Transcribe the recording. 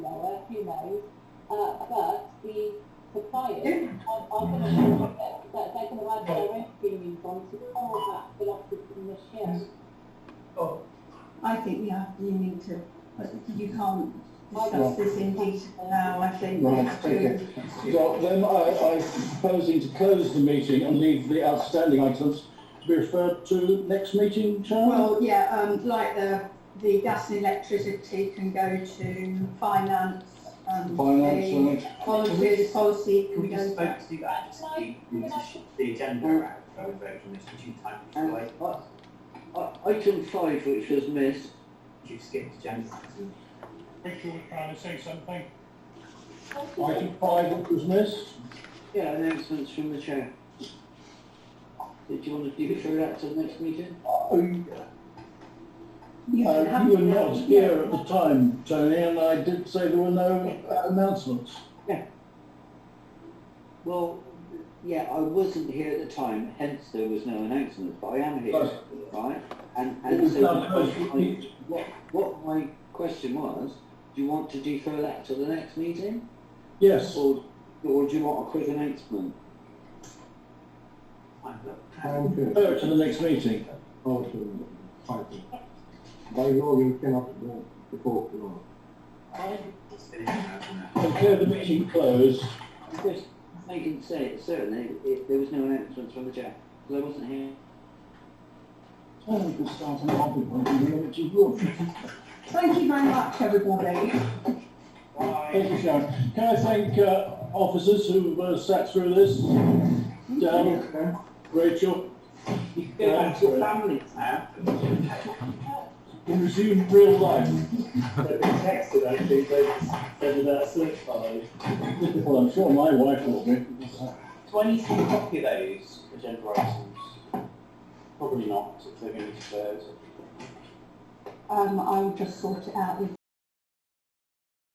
you know, uh, but the suppliers are, are going to that they're going to add their own premiums on to cover that philosophy from this year. I think you have, you need to, but you can't discuss this in detail now, I think. we have to- Well, then I, I'm proposing to close the meeting and leave the outstanding items to be referred to next meeting, Chairman. Well, yeah, um, like the, the gas and electricity can go to finance, um, the Finance, policy, policy can We go just Uh, to. spoke to that, just the, the agenda around, I would vote on this, which you typed, which you like, I- I- Item five, which was missed, you skipped agenda. Rachel was trying to say something. item five which was missed. yeah, announcements from the chair. Did you want to defer that to the next meeting? Uh, you- You can uh, have You were it now. not here at the time, Tony, and I did say there were no uh, announcements. Well, yeah, I wasn't here at the time, hence there was no announcement, but I am here, But right? And, It and was so done my first. question, I- what, what my question was, do you want to defer that to the next meeting? Yes, Or, or do you want a quick announcement? Fine, look, go to the next meeting. it's finished now, isn't it? Declare the meeting closed. I'm just making say, certainly, it, there was no announcement from the chair, because I wasn't here. Tony could start an argument, which is good. Thank you very much, everybody. Thank you, Sharon. Can I thank uh, officers who uh, sat through this? Dan, Rachel, You can go back to your families now. we resume real life. uh, Well, I'm sure my wife will be. Do I need to copy those agenda items? Probably not, if they're going to be deferred. Um, I'll just sort it out with